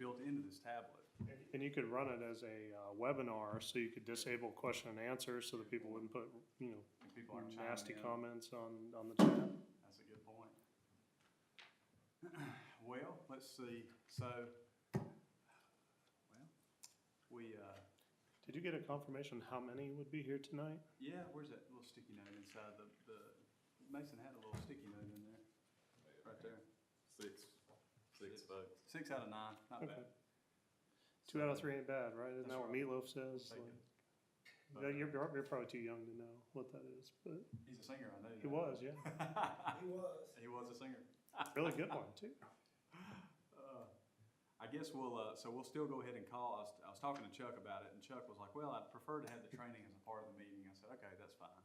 his tablet. And you could run it as a uh, webinar, so you could disable question and answer, so that people wouldn't put, you know, and People aren't nasty chiming in. comments on, on the chat. That's a good point. Well, let's see, so, well, we, uh, Did you get a confirmation how many would be here tonight? yeah, where's that little sticky note inside the, the, Mason had a little sticky note in there, right there. Six, six votes. Six out of nine, not Okay. bad. Two out of three ain't bad, right? Isn't That's that what right. Meatloaf says? Thank you. Like, yeah, You're, you're you're probably too young to know what that is, but He's a singer, I know. he was, yeah. that. He was. He was a singer. Really good one, too. Uh, I guess we'll, uh, so we'll still go ahead and call, I was, I was talking to Chuck about it, and Chuck was like, well, I'd prefer to have the training as a part of the meeting, I said, okay, that's fine.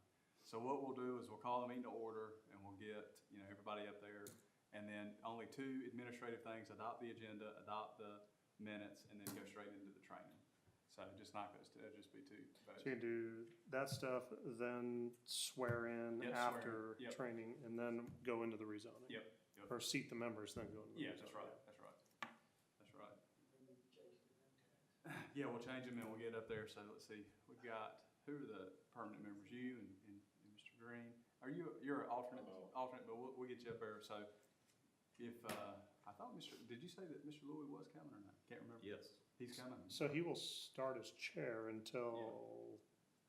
So what we'll do is we'll call the meeting to order, and we'll get, you know, everybody up there, and then only two administrative things, adopt the agenda, adopt the minutes, and then go straight into the training. So just not those, two, it'll just be two votes. So you can do that stuff, then swear in Yeah, swear in. after Yep. training, and then go into the rezoning. Yep, yep. Or seat the members, then go into the rezoning. Yeah, that's right, that's right, that's right. Yeah, we'll change them and we'll get up there, so let's see, we've got, who are the permanent members, you and, and and Mr. Green? Are you, you're an alternate, Hello. alternate, but we'll, we'll get you up there, so if, uh, I thought Mr., did you say that Mr. Louis was coming or not? Can't remember. Yes. He's coming. So he will start as chair until,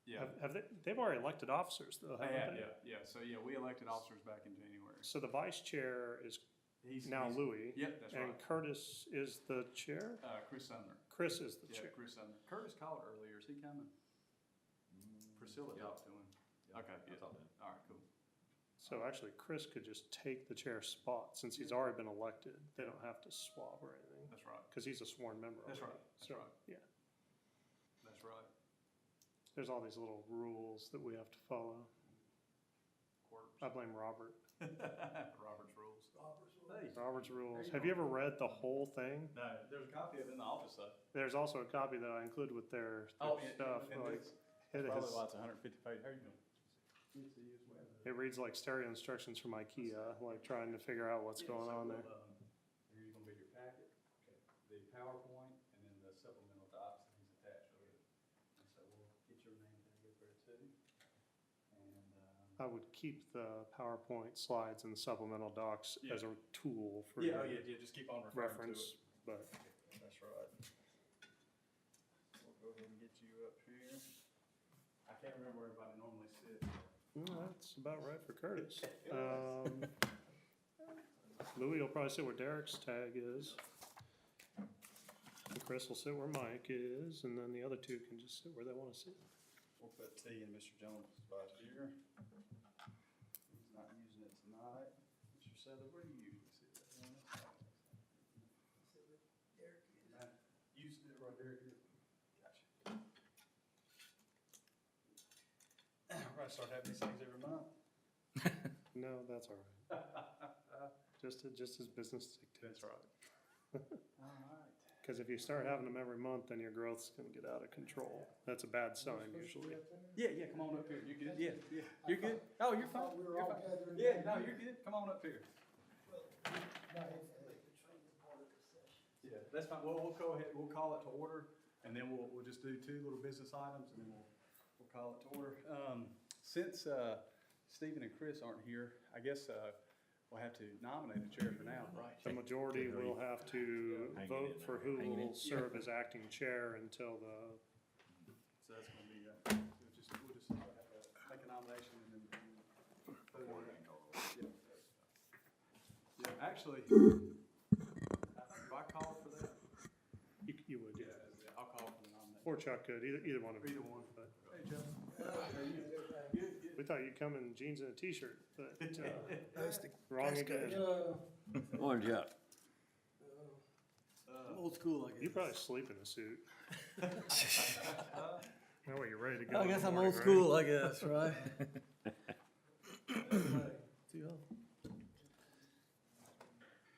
Yeah, have, have they, they've already elected officers though, yeah, haven't they? yeah, yeah, so, yeah, we elected officers back in January. So the vice chair is He's now he's- Louis, Yep, that's and right, Curtis is the chair? uh, Chris Sumner, Chris is the yeah, chair. Chris Sumner. Curtis called earlier, is he coming? Priscilla Yeah. talked to him. Yeah, Okay, I good. thought that. All right, cool. So actually, Chris could just take the chair spot, since he's already been elected, they don't have to swap or anything, That's right. because he's a sworn member That's already. right, that's So, right. Yeah, That's right. there's all these little rules that we have to follow. I Quarters. blame Robert. Robert's rules. Hey. Robert's rules. you Have you ever read the whole thing? No, there's a copy of it in the office though. There's also a copy that I include with their their Oh, Oh, stuff, like, it Probably is, lots, hundred and fifty page, how you doing? it reads like stereo instructions from IKEA, like trying to figure out what's going on there. Here's gonna be your packet, the PowerPoint, and then the supplemental docs that he's attached with it. And so we'll get your name tag up there too. And, um. I would keep the PowerPoint slides and supplemental docs Yeah. as a tool for Yeah, oh, your yeah, yeah, just keep on referring to it. reference, but That's right. We'll go ahead and get you up here. I can't remember where everybody normally sits. mm, that's about right for Curtis. Um, Louis will probably sit where Derek's tag is. And Chris will sit where Mike is, and then the other two can just sit where they want to sit. We'll put T in Mr. Jones' spot here. He's not using it tonight. Mr. Seller, where do you usually sit? That one outside? Nah, You sit right there, here. Gotcha. We're gonna start having these things every month. No, that's all right. Just, just as business dictates. right. All right. Because if you start having them every month, then your growth's gonna get out of control. That's a bad sign usually. Yeah, yeah, come on up here. You're good. Yeah, yeah. You're good. Oh, you're fine. We were You're all fine. gathering. Yeah, no, you're good. Come on up here. Yeah, that's fine. Well, we'll go ahead, we'll call it to order, and then we'll, we'll just do two little business items, and then we'll, we'll call it to order. Um, since, uh, Stephen and Chris aren't here, I guess, uh, we'll have to nominate a chair for now, right? The majority will have to Hanging vote in for there, who hanging in. will serve as acting chair until the, So that's gonna be, uh, we'll just, we'll just have a- make a nomination and then. vote on it. Yeah. Yeah, actually, I think if I call for that, you, you would, yeah, yeah. I'll call for the nomination. Or Chuck could, either, either one of them. Either one. But Hey, Jeff. How are you? Good, good. We thought you'd come in jeans and a t-shirt, but, uh, wrong That's again. Morning, Jeff. Uh, Old school, I guess. You probably sleep in a suit. That way you're ready to go. I in the guess I'm morning, old right? school, I guess, right?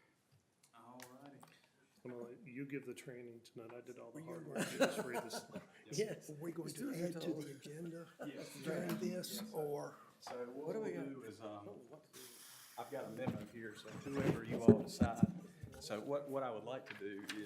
Alrighty. I'm gonna let you give the training tonight. I did all the hard work. You just read this. Yes. Are we going to add to the agenda Yes. during this, or? So what do we'll we do is, um, I've got a memo here, so whoever you all decide. So what, what I would like to do